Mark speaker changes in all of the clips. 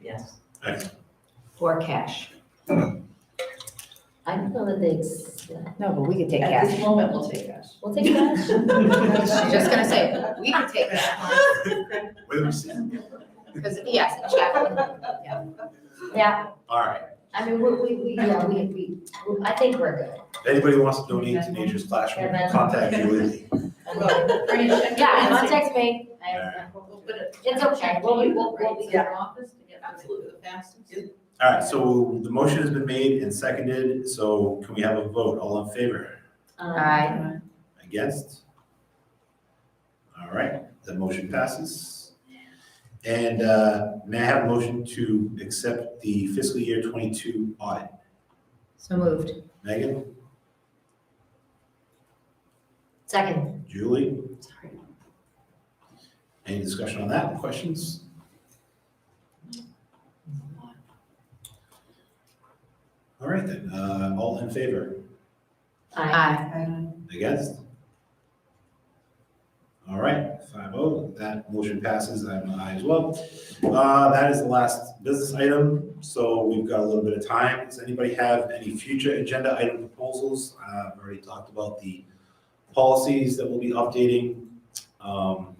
Speaker 1: Yes.
Speaker 2: Aye.
Speaker 1: For cash.
Speaker 3: I don't know that they, ex-
Speaker 1: No, but we could take
Speaker 4: At
Speaker 1: cash.
Speaker 4: this moment, we'll take cash.
Speaker 3: we'll take cash.
Speaker 1: Just gonna say, we could take cash,
Speaker 2: Wait a second.
Speaker 1: because, yes, a check.
Speaker 3: Yeah,
Speaker 2: All right.
Speaker 3: I mean, we, we, we, yeah, we, we, I think we're good.
Speaker 2: If Anybody wants to donate to Nature's Classroom, contact Julie.
Speaker 4: Although, bring a check.
Speaker 3: Yeah, contact me. I-
Speaker 4: We'll put a-
Speaker 3: It's okay, we'll be, we'll, we'll be.
Speaker 4: Right, to your office to get absolutely the fastest.
Speaker 2: All right, so the motion has been made and seconded, so can we have a vote? All in favor?
Speaker 3: um,
Speaker 1: Aye.
Speaker 2: Against? All right, the motion passes. And uh, may I have a motion to accept the fiscal year twenty-two audit?
Speaker 1: So moved.
Speaker 2: Megan,
Speaker 3: Second,
Speaker 2: Julie,
Speaker 3: sorry.
Speaker 2: any discussion on that? Questions? All right then, uh, all in favor?
Speaker 3: Aye.
Speaker 1: Aye.
Speaker 2: Against? All right, five oh, that motion passes, I'm an aye as well. Uh, that is the last business item, so we've got a little bit of time. Does anybody have any future agenda item proposals? Uh, I've already talked about the policies that we'll be updating. Um,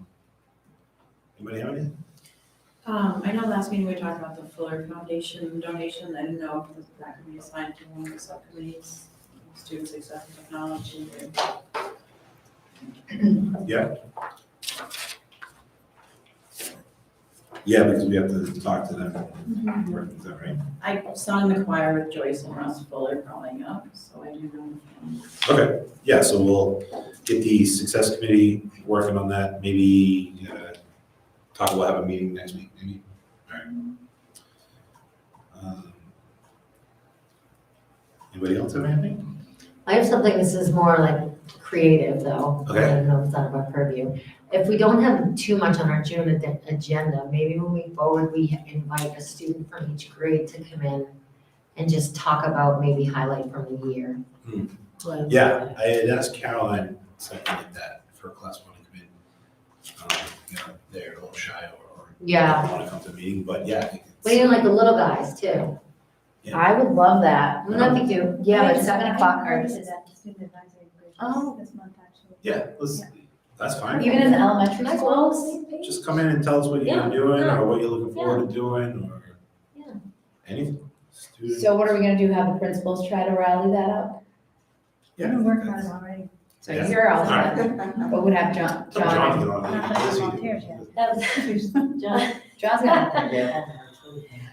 Speaker 2: Anybody have any?
Speaker 4: Um, I know last meeting we talked about the Fuller Foundation donation, I didn't know if that could be assigned to one of the subcommittees, student success and technology.
Speaker 2: Yeah, because we have to talk to them, Work, is that right?
Speaker 4: I sung in the choir with Joyce and Russ Fuller growing up, so I do know.
Speaker 2: Okay, yeah, so we'll get the success committee working on that, maybe, uh, talk, we'll have a meeting next week, maybe, alright. Um, Anybody else have anything?
Speaker 3: I have something, this is more like creative though.
Speaker 2: Okay.
Speaker 3: I don't know, if it's out of our purview. If we don't have too much on our June ad- agenda, maybe moving forward, we invite a student from each grade to come in and just talk about maybe highlight from the year.
Speaker 2: Hmm. Yeah, I had asked Caroline, something like that, for class one to come in. Um, you know, they're a little shy or, or.
Speaker 3: Yeah.
Speaker 2: Want to come to the meeting, but yeah, I think it's.
Speaker 3: But even like the little guys too.
Speaker 1: I would love that.
Speaker 3: Wouldn't that be cute?
Speaker 1: Yeah, but seven o'clock
Speaker 5: I
Speaker 1: hurts.
Speaker 5: invited that to student advisory group
Speaker 1: Oh.
Speaker 5: this month, actually.
Speaker 2: Yeah, let's, that's fine.
Speaker 1: Even in the elementary
Speaker 3: That's
Speaker 1: schools?
Speaker 2: Just come in and tell us what you're
Speaker 3: Yeah,
Speaker 2: doing
Speaker 3: no.
Speaker 2: or what you're looking forward to doing or
Speaker 3: Yeah.
Speaker 2: anything. Student-
Speaker 1: So what are we gonna do, have the principals try to rally that up?
Speaker 5: I've
Speaker 2: Yeah.
Speaker 5: been working on it already.
Speaker 1: So
Speaker 2: Yeah.
Speaker 1: you're all
Speaker 2: Alright.
Speaker 1: set, but would have John,
Speaker 2: Tell John
Speaker 1: John,
Speaker 2: to get on
Speaker 5: I
Speaker 2: it.
Speaker 5: haven't
Speaker 2: Busy.
Speaker 5: volunteered yet.
Speaker 3: That was, John,
Speaker 1: John's gonna.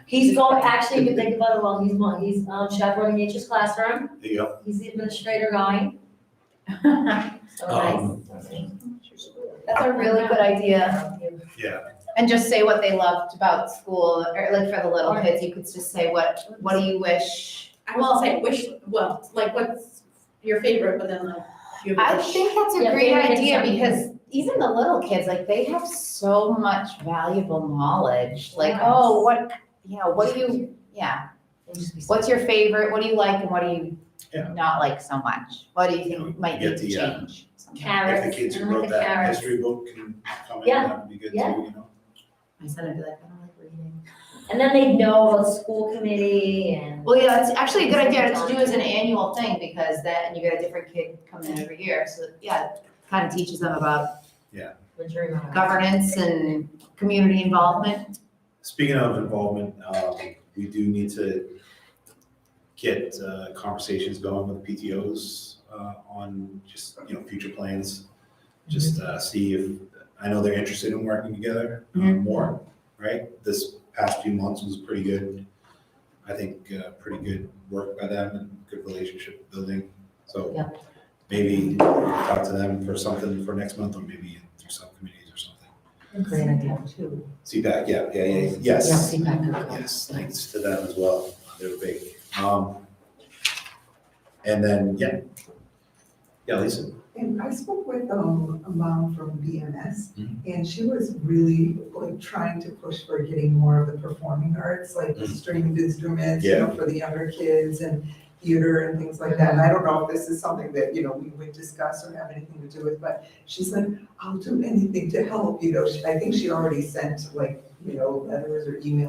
Speaker 3: he's going, actually, you can think about it while he's, while he's um, chaperoning nature's classroom.
Speaker 2: There you go.
Speaker 3: He's the administrator guy. So
Speaker 2: Um,
Speaker 3: nice.
Speaker 1: That's a really good idea.
Speaker 2: Yeah,
Speaker 1: And just say what they loved about school, or like for the little kids, you could just say what, what do you wish?
Speaker 4: I will say wish, well, like what's your favorite, but then like. you have a
Speaker 1: I
Speaker 4: wish.
Speaker 1: think that's a
Speaker 3: Yeah,
Speaker 1: great
Speaker 3: maybe it's
Speaker 1: idea
Speaker 3: something.
Speaker 1: because even the little kids, like they have so much valuable knowledge. Like,
Speaker 3: Yes.
Speaker 1: oh, what, you know, what do you, yeah, what's your favorite, what do you like and what do you
Speaker 2: Yeah.
Speaker 1: not like so much? What do you
Speaker 2: Yeah, we
Speaker 1: think might
Speaker 2: get
Speaker 1: need to
Speaker 2: the, uh,
Speaker 1: change?
Speaker 2: if
Speaker 1: Something.
Speaker 2: the
Speaker 3: Carrots,
Speaker 2: kids
Speaker 3: I
Speaker 2: who
Speaker 3: like
Speaker 2: wrote
Speaker 3: the
Speaker 2: that
Speaker 3: carrots.
Speaker 2: history book can come in,
Speaker 3: Yeah,
Speaker 2: that would be good too, you
Speaker 3: yeah.
Speaker 2: know?
Speaker 1: My son would be like, I don't like reading.
Speaker 3: And then they know about school committee and.
Speaker 1: Well, yeah, it's actually a good idea to do as an annual thing because then you get a different kid coming in every year. So, yeah, kind of teaches them about
Speaker 3: Majority of them.
Speaker 1: governance and community involvement.
Speaker 2: Speaking of involvement, um, we do need to get uh, conversations going with PTOs uh, on just, you know, future plans. Just uh, see if, I know they're interested in working together uh,
Speaker 1: Mhm.
Speaker 2: more, right? This past few months was pretty good. I think uh, pretty good work by them and good relationship building. So
Speaker 3: Yep.
Speaker 2: maybe talk to them for something for next month or maybe through subcommittees or something.
Speaker 3: Great idea too.
Speaker 2: CPAC, yeah, yeah, yeah,
Speaker 3: Yeah,
Speaker 2: yes.
Speaker 3: CPAC could go.
Speaker 2: Yes, thanks to them as well. They were big. Um, and then, yeah. Yeah, Lisa.
Speaker 6: And I spoke with um, a mom from BMS,
Speaker 2: Mhm.
Speaker 6: and she was really like trying to push for getting more of the performing arts, like
Speaker 2: Mhm.
Speaker 6: stringed instruments, you know, for the younger kids and theater and things like that. And I don't know if this is something that, you know, we would discuss or have anything to do with, but she's like, I'll do anything to help, you know. She- I think she already sent like, you know, letters or emails